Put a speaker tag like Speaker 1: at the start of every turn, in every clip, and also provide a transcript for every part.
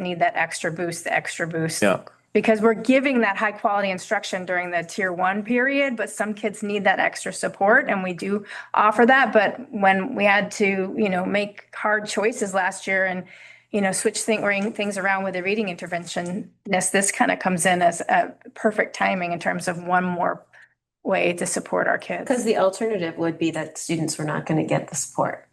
Speaker 1: need that extra boost, the extra boost.
Speaker 2: Yeah.
Speaker 1: Because we're giving that high quality instruction during the tier one period, but some kids need that extra support and we do offer that. But when we had to, you know, make hard choices last year and, you know, switch thing, ring things around with the reading intervention, this, this kind of comes in as a perfect timing in terms of one more way to support our kids.
Speaker 3: Because the alternative would be that students were not going to get the support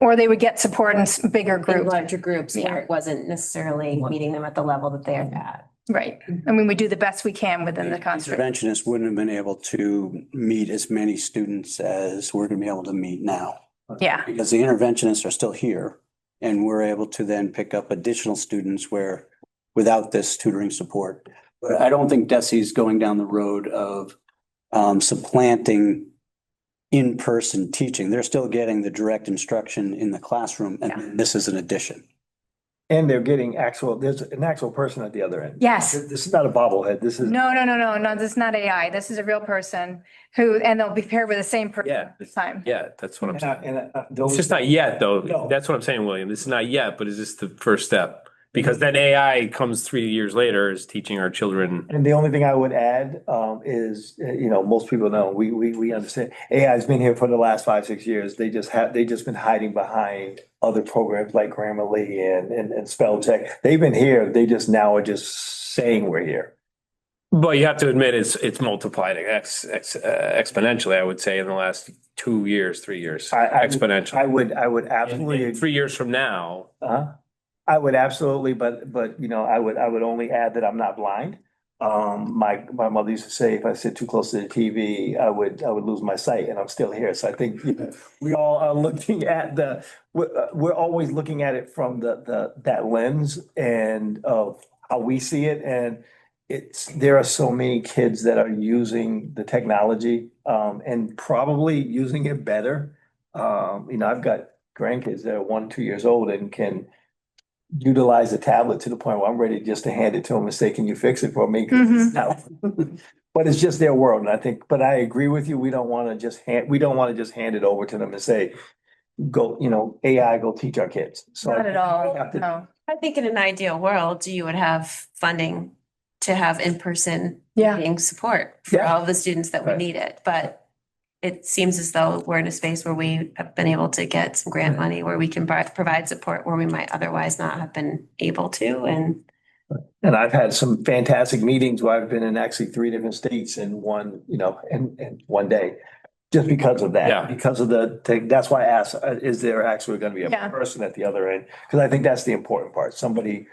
Speaker 1: Or they would get support in s- bigger
Speaker 3: in
Speaker 1: groups,
Speaker 3: larger groups where it wasn't necessarily meeting them at the level that they are at.
Speaker 1: right? I mean, we do the best we can within the construct.
Speaker 4: Interventionists wouldn't have been able to meet as many students as we're gonna be able to meet now.
Speaker 1: Yeah,
Speaker 4: Because the interventionists are still here and we're able to then pick up additional students where, without this tutoring support. But I don't think Desi's going down the road of um, supplanting in-person teaching. They're still getting the direct instruction in the classroom and this is an addition.
Speaker 5: And they're getting actual, there's an actual person at the other end.
Speaker 1: yes.
Speaker 5: This is not a bobblehead. This is,
Speaker 1: No, no, no, no, no, this is not AI. This is a real person who, and they'll be paired with the same person
Speaker 2: Yeah.
Speaker 1: this time.
Speaker 2: Yeah, that's what I'm
Speaker 5: and
Speaker 2: saying.
Speaker 5: I- uh, and I-
Speaker 2: It's
Speaker 5: those,
Speaker 2: just not yet, though.
Speaker 5: No. Mm-hmm.
Speaker 2: That's what I'm saying, William. It's not yet, but it's just the first step. Because then AI comes three years later is teaching our children.
Speaker 5: and the only thing I would add, um, is, uh, you know, most people know, we, we, we understand. AI's been here for the last five, six years. They just have, they just been hiding behind other programs like Grammarly and, and, and spell check. They've been here. They just now are just saying we're here.
Speaker 2: But you have to admit, it's, it's multiplied ex, ex, uh, exponentially, I would say, in the last two years, three years.
Speaker 5: I- I- I
Speaker 2: Exponentially.
Speaker 5: would, I would
Speaker 2: And- and
Speaker 5: absolutely. agree.
Speaker 2: Three years from now,
Speaker 5: Uh-huh. I would absolutely, but, but, you know, I would, I would only add that I'm not blind. Um, my, my mother used to say, if I sit too close to the TV, I would, I would lose my sight, and I'm still here. So I think you know, we all are looking at the, we're, uh, we're always looking at it from the, the, that lens and of how we see it. And it's, there are so many kids that are using the technology, um, and probably using it better. Um, you know, I've got grandkids that are one, two years old and can utilize a tablet to the point where I'm ready just to hand it to them and say, can you fix it for me? 'Cause it's not- But it's just their world. And I think, but I agree with you. We don't want to just hand, we don't want to just hand it over to them and say, go, you know, AI, go teach our kids. So I
Speaker 1: Not at
Speaker 5: think we
Speaker 1: all,
Speaker 5: have to-
Speaker 1: no.
Speaker 3: I think in an ideal world, you would have funding to have in-person
Speaker 1: Yeah,
Speaker 3: being support for
Speaker 5: Yeah.
Speaker 3: all the students that would
Speaker 5: Right.
Speaker 3: need it. But it seems as though we're in a space where we have been able to get some grant money where we can buy- provide support where we might otherwise not have been able to. And
Speaker 5: And I've had some fantastic meetings where I've been in actually three different states in one, you know, in, in one day. Just because of
Speaker 2: Yeah.
Speaker 5: that, because of the, thing. that's why I asked, uh, is there actually going to be
Speaker 1: Yeah.
Speaker 5: a person at the other end? Because I think that's the important part. Somebody,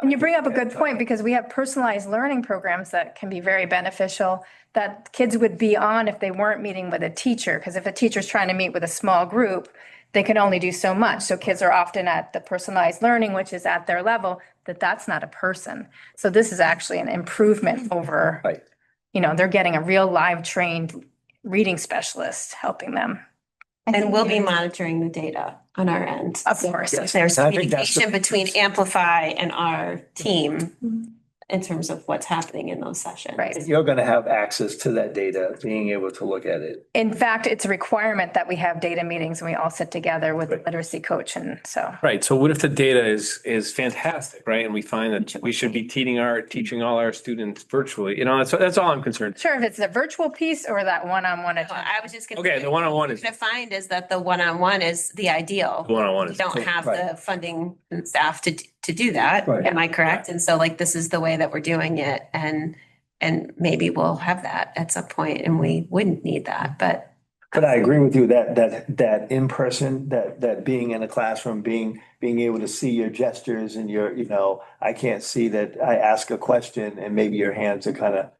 Speaker 1: and you bring up a good point because we have personalized learning programs that can be very beneficial that kids would be on if they weren't meeting with a teacher. Because if a teacher's trying to meet with a small group, they can only do so much. So kids are often at the personalized learning, which is at their level, that that's not a person. So this is actually an improvement over
Speaker 5: Right.
Speaker 1: you know, they're getting a real live trained reading specialist helping them.
Speaker 3: and we'll be monitoring the data on our end.
Speaker 1: Of course.
Speaker 3: If There's
Speaker 5: And I think that's the-
Speaker 3: communication between Amplify and our team in terms of what's happening in those sessions.
Speaker 1: Mm-hmm. Right.
Speaker 5: you're going to have access to that data, being able to look at it.
Speaker 1: In fact, it's a requirement that we have data meetings and we all sit together with the
Speaker 5: Right.
Speaker 1: literacy coach and so.
Speaker 2: right? So what if the data is, is fantastic, right? And we find that we should be teaching our, teaching all our students virtually, you know, that's, that's all I'm concerned.
Speaker 1: Sure, if it's the virtual piece or that one-on-one.
Speaker 3: No, I was just. gonna
Speaker 2: Okay,
Speaker 3: say,
Speaker 2: the one-on-one
Speaker 3: what
Speaker 2: is-
Speaker 3: you're Gonna find is that the one-on-one is the ideal.
Speaker 2: One-on-one
Speaker 3: You
Speaker 2: is.
Speaker 3: don't have
Speaker 5: Right.
Speaker 3: the funding and staff to, to do that.
Speaker 5: Right.
Speaker 3: Am I correct? And so like, this is the way that we're doing it and, and maybe we'll have that at some point and we wouldn't need that, but.
Speaker 5: But I agree with you that, that, that in person, that, that being in a classroom, being, being able to see your gestures and your, you know, I can't see that I ask a question and maybe your hands are kind of,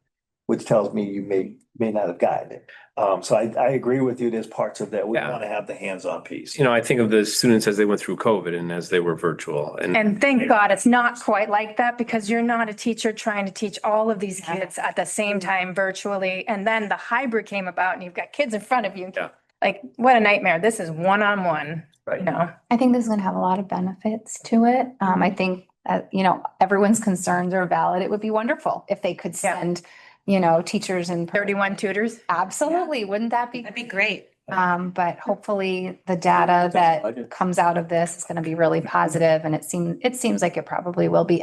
Speaker 5: which tells me you may, may not have gotten it. Um, so I, I agree with you. There's parts of that. We
Speaker 2: Yeah.
Speaker 5: want to have the hands-on piece.
Speaker 2: You know, I think of the students as they went through COVID and as they were virtual and.
Speaker 1: And thank God it's not quite like that because you're not a teacher trying to teach all of these kids at the same time virtually. And then the hybrid came about and you've got kids in front of you.
Speaker 2: Yeah.
Speaker 1: Like, what a nightmare. This is one-on-one,
Speaker 5: Right.
Speaker 1: you know?
Speaker 6: I think this is gonna have a lot of benefits to it. Um, I think, uh, you know, everyone's concerns are valid. It would be wonderful if they could
Speaker 1: Yeah.
Speaker 6: send, you know, teachers and.
Speaker 1: Thirty-one tutors.
Speaker 6: Absolutely, wouldn't that be?
Speaker 3: That'd be great.
Speaker 6: Um, but hopefully the data that comes out of this is gonna be really positive and it seems, it seems like it probably will be